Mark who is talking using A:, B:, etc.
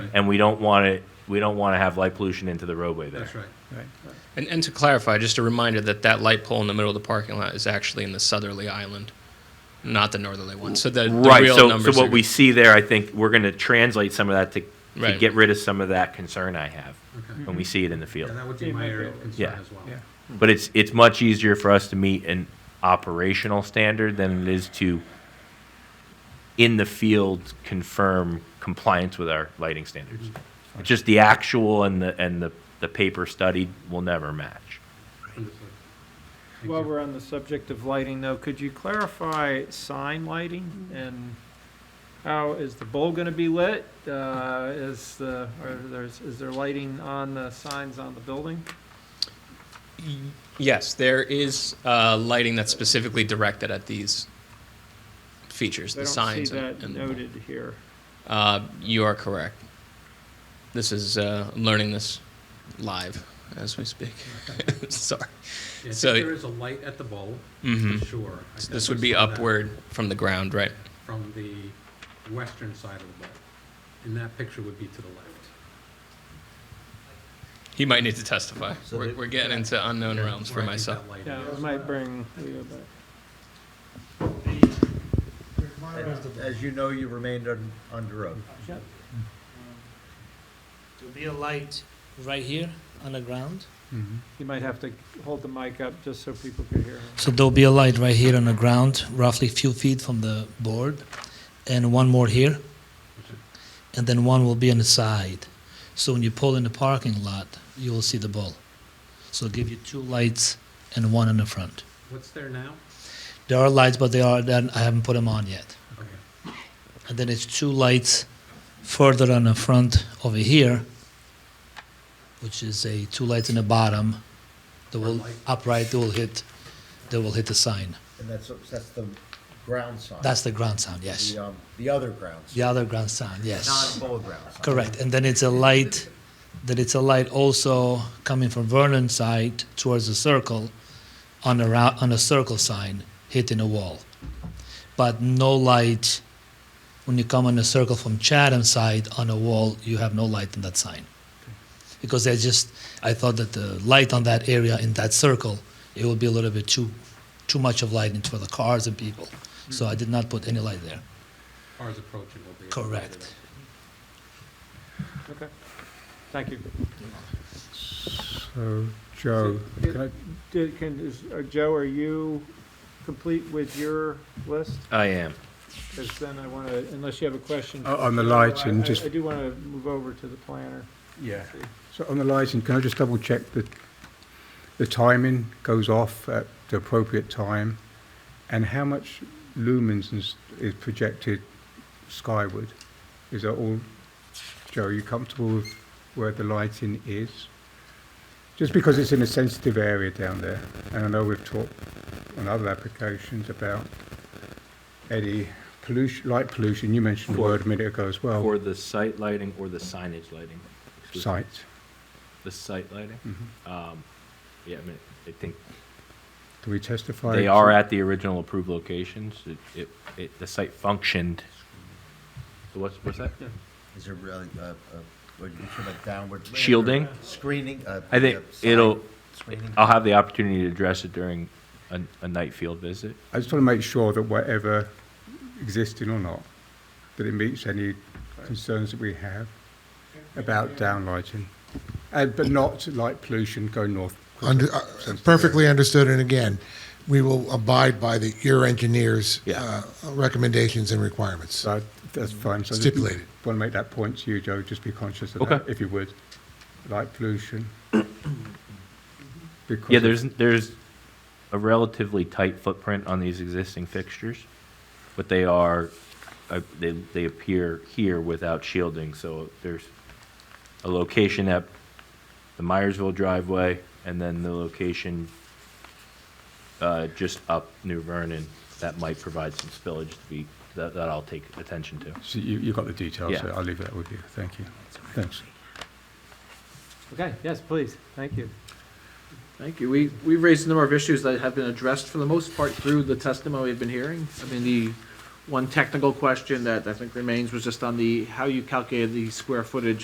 A: and we don't want it, we don't want to have light pollution into the roadway there.
B: That's right.
C: And, and to clarify, just a reminder that that light pole in the middle of the parking lot is actually in the southerly island, not the northerly one. So the, the
A: Right,
C: real
A: so, so
C: numbers are-
A: what we see there, I think, we're gonna translate some of that to, to
C: Right.
A: get rid of some of that concern I have
B: Okay.
A: when we see Mm-hmm. it in the
B: Yeah,
A: field.
B: that would be my area of concern
A: Yeah.
B: as
D: Yeah.
B: well.
A: But it's, it's much easier for us to meet an operational standard than it is to, in the field, confirm compliance with our lighting standards.
C: Mm-hmm.
A: Just the actual and the, and the, the paper study will never match.
B: Understood. Thank
D: While
B: you.
D: we're on the subject of lighting though, could you clarify sign lighting and how is the bowl gonna be lit? Uh, is the, are there's, is there lighting on the signs on the building?
C: Yes, there is uh, lighting that's specifically directed at these features,
D: I
C: the
D: don't
C: signs.
D: see that
C: and-
D: noted here.
C: Uh, you are correct. This is uh, I'm learning this live as we speak. Sorry.
B: Yeah, I
C: so-
B: think there is a light at the bulb,
C: hmm
A: Mm-hmm.
B: for sure. I
C: This
B: definitely
C: would be
B: saw that
C: upward from the ground, right?
B: From the western side of the bulb. And that picture would be to the left.
C: He might need to testify.
E: So
C: We're,
E: they-
C: we're getting into unknown realms for
B: Where I think
C: myself.
B: that light
D: Yeah,
B: is.
D: it might bring Leo back.
E: As you know, you remained un- under oath.
D: Yep.
F: There'll be a light right here on the ground.
D: You might have to hold the mic up just so people could hear him.
F: So there'll be a light right here on the ground, roughly few feet from the board, and one more here, and then one will be on the side. So when you pull in the parking lot, you will see the ball. So it'll give you two lights and one in the front.
B: What's there now?
F: There are lights, but they are then I haven't put them on yet.
B: Okay.
F: And then it's two lights further on the front over here, which is a two lights in the bottom. That will
B: Front light.
F: upright. They will hit. They will hit the sign.
E: And that's, that's the ground sign.
F: That's the ground sound, yes.
E: The, um, the other ground
F: The
E: sign.
F: other ground sound, yes.
E: Non-full ground sign.
F: Correct. And then it's a light, that it's a light also coming from Vernon side towards the circle on a, rou- on a circle sign hitting a wall. But no light, when you come on a circle from Chatham side on a wall, you have no light on that sign. Because I just, I thought that the light on that area in that circle, it would be a little bit too, too much of light for the cars and people. So I did not put any light there.
B: Cars approaching will be.
F: Correct.
D: Okay. Thank you.
G: So, Oh, Joe,
D: So,
G: can I,
D: Did, can, is, uh, Joe, are you complete with your list?
A: I am.
D: Because then I want to, unless you have a question.
G: o- oh, on the lighting,
D: I- I
G: just,
D: do want to move over to the planner.
G: yeah. So on the lighting, can I just double check that the timing goes off at the appropriate time? And how much lumens is, is projected skyward? Is that all? Joe, are you comfortable with where the lighting is? Just because it's in a sensitive area down there, and I know we've talked on other applications about any pollution, light pollution, you mentioned the
A: For-
G: word a minute ago as
C: Oh.
G: well.
A: For the site lighting or the signage lighting?
G: Site.
A: The site lighting?
G: Mhm.
A: Um, yeah, I mean, I think
G: Do we testify?
A: they are
G: to-
A: at the original approved locations. It, it, it, the site functioned. What's, what's that?
E: Is there really, uh, uh, what you should have downward.
A: Shielding?
E: Screening. uh,
A: I think
E: uh, sign
A: it'll,
E: Screening.
A: I'll have the opportunity to address it during a, a night field visit.
G: I just want to make sure that whatever existing or not, that it meets any concerns that we have about downlighting. And, but not light pollution going north.
H: Under, uh, perfectly understood, and again, we will abide by the, your engineer's
A: Yeah.
H: uh, recommendations and requirements.
G: So that's fine. So I just
H: Stipulated.
G: Want to make that point to you, Joe, just be conscious of
A: Okay. Mm-hmm.
G: that, if you would. Light pollution. Because
A: Yeah,
G: of-
A: there's, there's a relatively tight footprint on these existing fixtures, but they are, uh, they, they appear here without shielding, so there's a location at the Myersville driveway, and then the location uh, just up New Vernon, that might provide some spillage to be, that, that I'll take attention to.
G: So you, you got the details, so
A: Yeah.
G: I'll leave that with you. Thank you. Thanks.
D: Okay, yes, please, thank you.
I: Thank you. We, we raised a number of issues that have been addressed for the most part through the testimony we've been hearing. I mean, the one technical question that I think remains was just on the, how you calculate the square footage